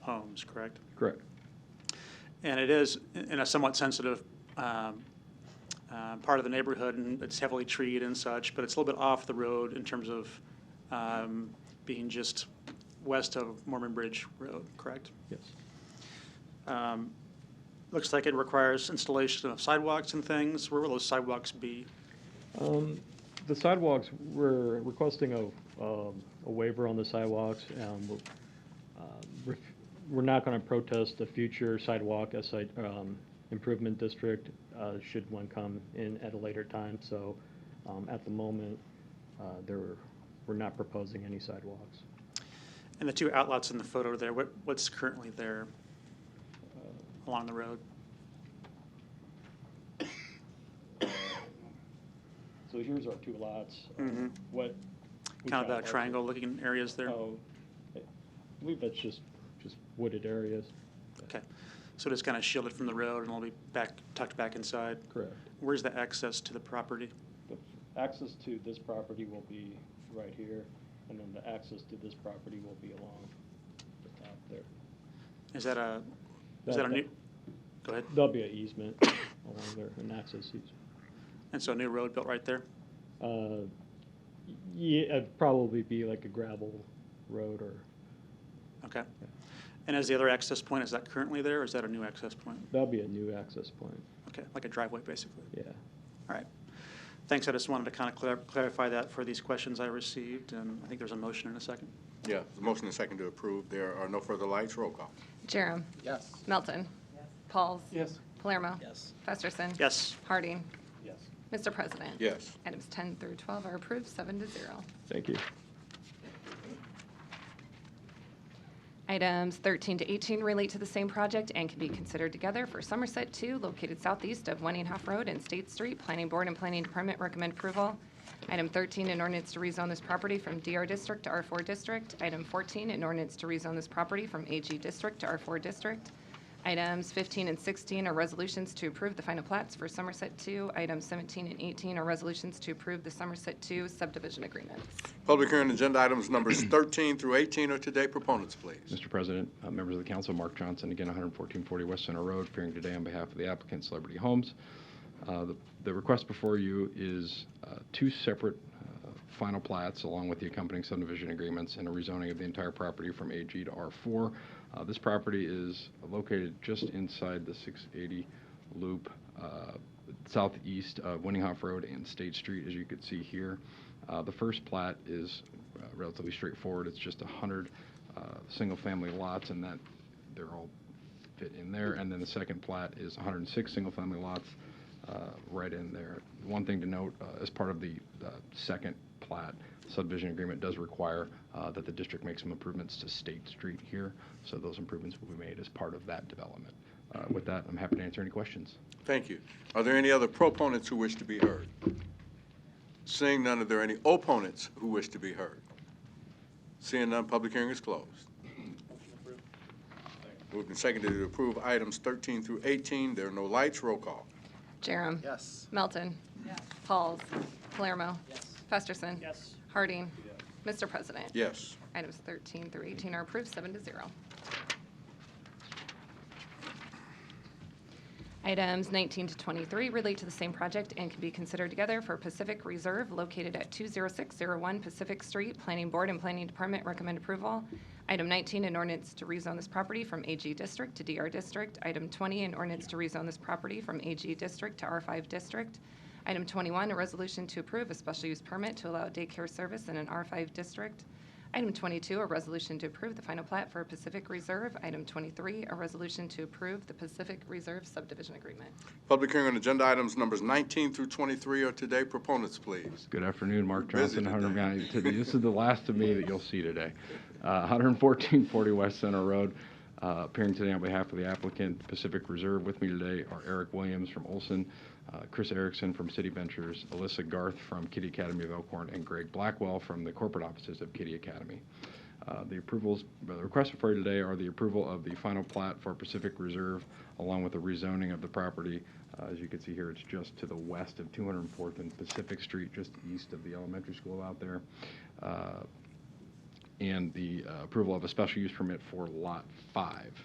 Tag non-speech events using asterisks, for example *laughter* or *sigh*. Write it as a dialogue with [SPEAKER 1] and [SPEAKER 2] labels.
[SPEAKER 1] homes, correct?
[SPEAKER 2] Correct.
[SPEAKER 1] And it is in a somewhat sensitive um, uh, part of the neighborhood, and it's heavily treed and such, but it's a little bit off the road in terms of um, being just west of Mormon Bridge Road, correct?
[SPEAKER 2] Yes.
[SPEAKER 1] Um, Looks like it requires installation of sidewalks and things. Where will those sidewalks be?
[SPEAKER 2] Um, The sidewalks, we're requesting a, um, a waiver on the sidewalks. and we're, um, we're- We're not going to protest the future sidewalk as site, um, improvement district, uh, should one come in at a later time. So um, at the moment, uh, there, were- we're not proposing any sidewalks.
[SPEAKER 1] And the two outlots in the photo there, what, what's currently there along the road?
[SPEAKER 2] So here's our two lots.
[SPEAKER 1] Mhm.
[SPEAKER 2] What?
[SPEAKER 1] Kind of the triangle looking areas there?
[SPEAKER 2] Oh, I believe that's just, just wooded areas.
[SPEAKER 1] Okay. So it's kind of shielded from the road and it'll be back, tucked back inside?
[SPEAKER 2] Correct.
[SPEAKER 1] Where's the access to the property?
[SPEAKER 2] The access to this property will be right here, and then the access to this property will be along the top there.
[SPEAKER 1] Is that a, is that a new, go ahead.
[SPEAKER 2] There'll be an easement along there, an access easement.
[SPEAKER 1] And so a new road built right there?
[SPEAKER 2] Uh, y- Yeah, it'd probably be like a gravel road or,
[SPEAKER 1] Okay. And is the other access point, is that currently there or is that a new access point?
[SPEAKER 2] that'll be a new access point,
[SPEAKER 1] Okay, like a driveway, basically?
[SPEAKER 2] yeah.
[SPEAKER 1] All right. Thanks, I just wanted to kind of clarify that for these questions I received, and I think there's a motion in a second.
[SPEAKER 3] Yeah, the motion is second to approve. There are no further lights. Roll call.
[SPEAKER 4] Jerem.
[SPEAKER 5] Yes.
[SPEAKER 4] Melton. Pauls.
[SPEAKER 5] Yes.
[SPEAKER 4] Palermo.
[SPEAKER 5] Yes.
[SPEAKER 4] Festerson.
[SPEAKER 1] Yes,
[SPEAKER 4] Harding.
[SPEAKER 5] Yes.
[SPEAKER 4] Mr. President.
[SPEAKER 3] Yes.
[SPEAKER 4] Items 10 through 12 are approved, seven to zero.
[SPEAKER 2] Thank you.
[SPEAKER 4] Items 13 to 18 relate to the same project and can be considered together for Somerset 2, located southeast of Wenninhoff Road and State Street. Planning Board and Planning Department recommend approval. Item 13, an ordinance to rezone this property from DR District to R4 District. Item 14, an ordinance to rezone this property from AG District to R4 District. Items 15 and 16 are resolutions to approve the final plats for Somerset 2. Items 17 and 18 are resolutions to approve the Somerset 2 subdivision agreements.
[SPEAKER 3] Public hearing on agenda items numbers 13 through 18 are today. Proponents, please.
[SPEAKER 6] Mr. President, uh, members of the council, Mark Johnson, again, 11440 West Center Road, appearing today on behalf of the applicant Celebrity Homes. Uh, The the request before you is uh, two separate uh, final plats, along with the accompanying subdivision agreements, and a rezoning of the entire property from AG to R4. Uh, This property is located just inside the 680 loop uh, southeast of Winninghoff Road and State Street, as you can see here. Uh, The first plat is uh, relatively straightforward. It's just 100 uh, single-family lots, and that, they're all fit in there. And then the second plat is 106 single-family lots uh, right in there. One thing to note, uh, as part of the uh, second plat, subdivision agreement does require uh, that the district make some improvements to State Street here, so those improvements will be made as part of that development. Uh, With that, I'm happy to answer any questions.
[SPEAKER 3] Thank you. Are there any other proponents who wish to be heard? Seeing none, are there any opponents who wish to be heard? Seeing none, public hearing is closed. Moved and seconded to approve items 13 through 18. There are no lights. Roll call.
[SPEAKER 4] Jerem.
[SPEAKER 5] Yes.
[SPEAKER 4] Melton. Pauls. Palermo.
[SPEAKER 5] Yes.
[SPEAKER 4] Festerson.
[SPEAKER 5] Yes.
[SPEAKER 4] Harding. Mr. President.
[SPEAKER 3] Yes.
[SPEAKER 4] Items 13 through 18 are approved, seven to zero. Items 19 to 23 relate to the same project and can be considered together for Pacific Reserve located at 20601 Pacific Street. Planning Board and Planning Department recommend approval. Item 19, an ordinance to rezone this property from AG District to DR District. Item 20, an ordinance to rezone this property from AG District to R5 District. Item 21, a resolution to approve a special use permit to allow daycare service in an R5 district. Item 22, a resolution to approve the final plat for Pacific Reserve. Item 23, a resolution to approve the Pacific Reserve subdivision agreement.
[SPEAKER 3] Public hearing on agenda items numbers 19 through 23 are today. Proponents, please.
[SPEAKER 6] Good afternoon, Mark
[SPEAKER 3] We're busy
[SPEAKER 6] Johnson, Hunter
[SPEAKER 3] today.
[SPEAKER 6] County.
[SPEAKER 3] *laughs*
[SPEAKER 6] This is the last of me that you'll see today. Uh, 11440 West Center Road, uh, appearing today on behalf of the applicant, Pacific Reserve. With me today are Eric Williams from Olson, uh, Chris Erickson from City Ventures, Alyssa Garth from Kitty Academy of Elkhorn, and Greg Blackwell from the corporate offices of Kitty Academy. Uh, The approvals, the requests before you today are the approval of the final plat for Pacific Reserve, along with the rezoning of the property. Uh, As you can see here, it's just to the west of 204th and Pacific Street, just east of the elementary school out there. Uh, And the uh, approval of a special use permit for Lot 5.